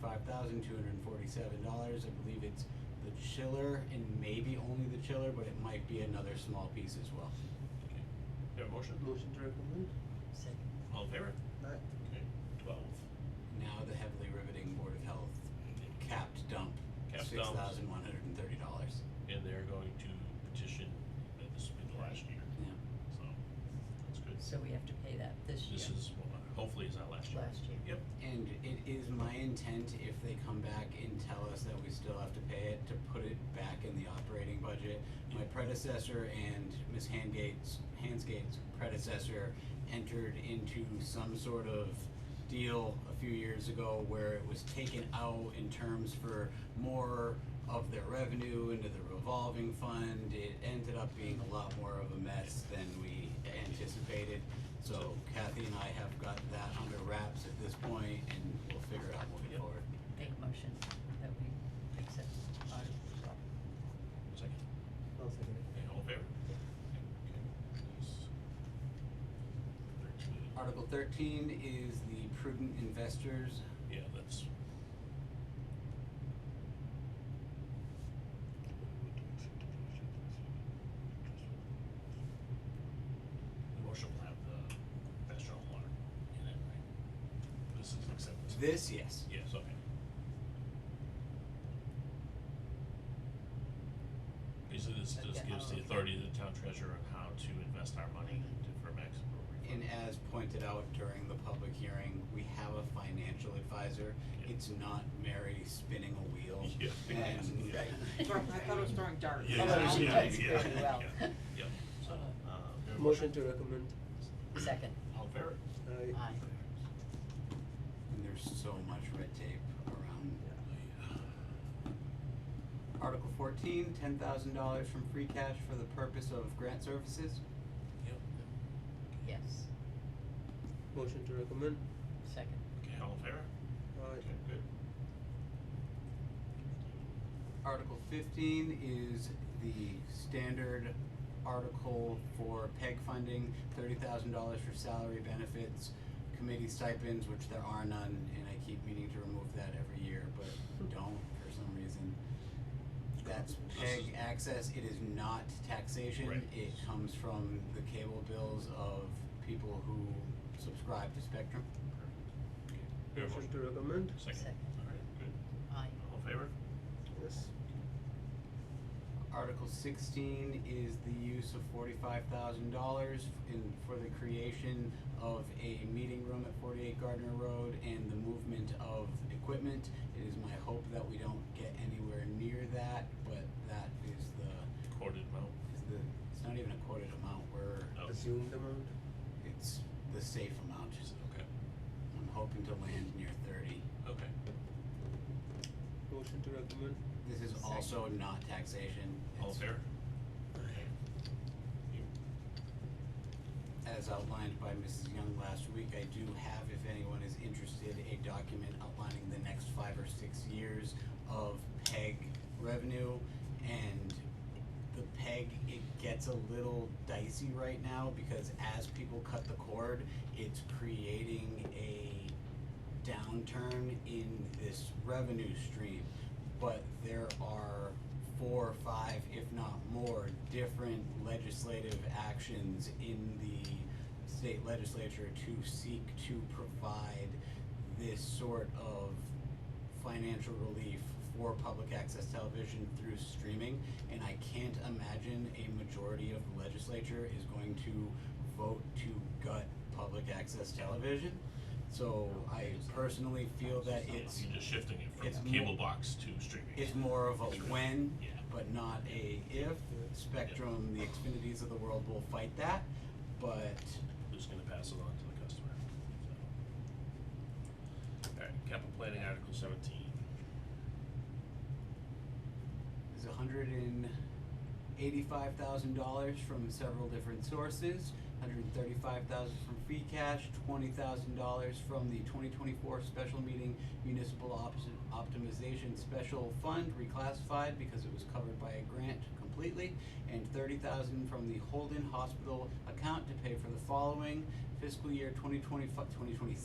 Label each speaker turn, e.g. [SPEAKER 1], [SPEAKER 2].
[SPEAKER 1] five thousand two hundred and forty-seven dollars. I believe it's the chiller and maybe only the chiller, but it might be another small piece as well.
[SPEAKER 2] Okay. Do you have a motion?
[SPEAKER 3] Motion to recommend.
[SPEAKER 4] Second.
[SPEAKER 2] All in favor?
[SPEAKER 3] Aye.
[SPEAKER 2] Okay, twelve.
[SPEAKER 1] Now the heavily riveting Board of Health capped dump,
[SPEAKER 2] Capped
[SPEAKER 1] six
[SPEAKER 2] dump.
[SPEAKER 1] thousand one hundred and thirty dollars.
[SPEAKER 2] And they're going to petition that this will be the last year, so that's good.
[SPEAKER 4] So we have to pay that this year.
[SPEAKER 2] This is, well, hopefully it's not last year.
[SPEAKER 4] Last year.
[SPEAKER 2] Yep.
[SPEAKER 1] And it is my intent, if they come back and tell us that we still have to pay it, to put it back in the operating budget. My predecessor and Ms. Handgate's, Hansgate's predecessor entered into some sort of deal a few years ago where it was taken out in terms for more of their revenue into the revolving fund. It ended up being a lot more of a mess than we anticipated. So Kathy and I have got that under wraps at this point and we'll figure it out moving
[SPEAKER 2] Yep.
[SPEAKER 1] forward.
[SPEAKER 4] Make a motion that we accept audit result.
[SPEAKER 2] Second.
[SPEAKER 3] I'll second it.
[SPEAKER 2] And all in favor? Okay, nice. Thirteen.
[SPEAKER 1] Article thirteen is the prudent investors.
[SPEAKER 2] Yeah, that's. The motion will have the best shot water in it, right? This is acceptance.
[SPEAKER 1] This, yes.
[SPEAKER 2] Yes, okay. Basically, this just
[SPEAKER 4] Okay,
[SPEAKER 2] gives the
[SPEAKER 4] oh, okay.
[SPEAKER 2] authority to the town treasurer on how to invest our money to- for maximum
[SPEAKER 1] And
[SPEAKER 2] refund.
[SPEAKER 1] as pointed out during the public hearing, we have a financial advisor.
[SPEAKER 2] Yeah.
[SPEAKER 1] It's not Mary spinning a wheel.
[SPEAKER 2] Yeah.
[SPEAKER 1] And
[SPEAKER 2] Yeah.
[SPEAKER 5] Throw- I thought it was throwing darts.
[SPEAKER 2] Yeah,
[SPEAKER 4] Although
[SPEAKER 2] yeah,
[SPEAKER 4] she
[SPEAKER 2] yeah,
[SPEAKER 4] types
[SPEAKER 2] yeah,
[SPEAKER 4] pretty well.
[SPEAKER 2] yeah, yeah. so, uh, there are
[SPEAKER 3] Motion to recommend.
[SPEAKER 4] Second.
[SPEAKER 2] All in favor?
[SPEAKER 3] Aye.
[SPEAKER 4] Aye.
[SPEAKER 1] and there's so much red tape around. Article fourteen, ten thousand dollars from free cash for the purpose of grant services.
[SPEAKER 2] Yep.
[SPEAKER 4] Yes.
[SPEAKER 3] Motion to recommend.
[SPEAKER 4] Second.
[SPEAKER 2] Okay, all in favor?
[SPEAKER 3] Aye.
[SPEAKER 2] Okay, good.
[SPEAKER 1] Article fifteen is the standard article for PEG funding, thirty thousand dollars for salary benefits, committee stipends, which there are none, and I keep meaning to remove that every year, but don't for some reason. That's
[SPEAKER 2] This is-
[SPEAKER 1] PEG access, it is not taxation,
[SPEAKER 2] Right.
[SPEAKER 1] it comes from the cable bills of people who subscribe to Spectrum.
[SPEAKER 2] Perfect. Okay, we have a
[SPEAKER 3] Motion to recommend.
[SPEAKER 2] Second.
[SPEAKER 4] Second.
[SPEAKER 2] All right, good.
[SPEAKER 4] Aye.
[SPEAKER 2] All in favor?
[SPEAKER 3] Yes.
[SPEAKER 1] Article sixteen is the use of forty-five thousand dollars in, for the creation of a meeting room at forty-eight Gardner Road and the movement of equipment. It is my hope that we don't get anywhere near that, but that is the,
[SPEAKER 2] Recorded amount.
[SPEAKER 1] is the, it's not even a quoted amount, we're,
[SPEAKER 2] No.
[SPEAKER 3] Assumed amount.
[SPEAKER 1] it's the safe amount.
[SPEAKER 2] Just- Okay,
[SPEAKER 1] I'm hoping to land near thirty.
[SPEAKER 2] okay.
[SPEAKER 3] Motion to recommend.
[SPEAKER 1] This is
[SPEAKER 4] Second.
[SPEAKER 1] also not taxation.
[SPEAKER 2] All in
[SPEAKER 1] It's-
[SPEAKER 2] favor? Okay. You-
[SPEAKER 1] as outlined by Mrs. Young last week, I do have, if anyone is interested, a document outlining the next five or six years of PEG revenue. And the PEG, it gets a little dicey right now because as people cut the cord, it's creating a downturn in this revenue stream. But there are four or five, if not more, different legislative actions in the state legislature to seek to provide this sort of financial relief for public access television through streaming. And I can't imagine a majority of the legislature is going to vote to gut public access television. So I personally feel that
[SPEAKER 2] so
[SPEAKER 1] it's,
[SPEAKER 2] You're just shifting it
[SPEAKER 1] it's
[SPEAKER 2] from cable
[SPEAKER 1] more-
[SPEAKER 2] box to streaming.
[SPEAKER 1] it's more of a when,
[SPEAKER 2] Yeah.
[SPEAKER 1] but not a if. Spectrum, the Xfinities of the world will fight that, but
[SPEAKER 2] We're just gonna pass it on to the customer, so. Alright, capital planning, article seventeen.
[SPEAKER 1] is hundred and eighty-five thousand dollars from several different sources. Hundred and thirty-five thousand from free cash, twenty thousand dollars from the twenty twenty-four special meeting municipal opt- optimization special fund reclassified because it was covered by a grant completely. And thirty thousand from the Holden Hospital account to pay for the following fiscal year 2025 2026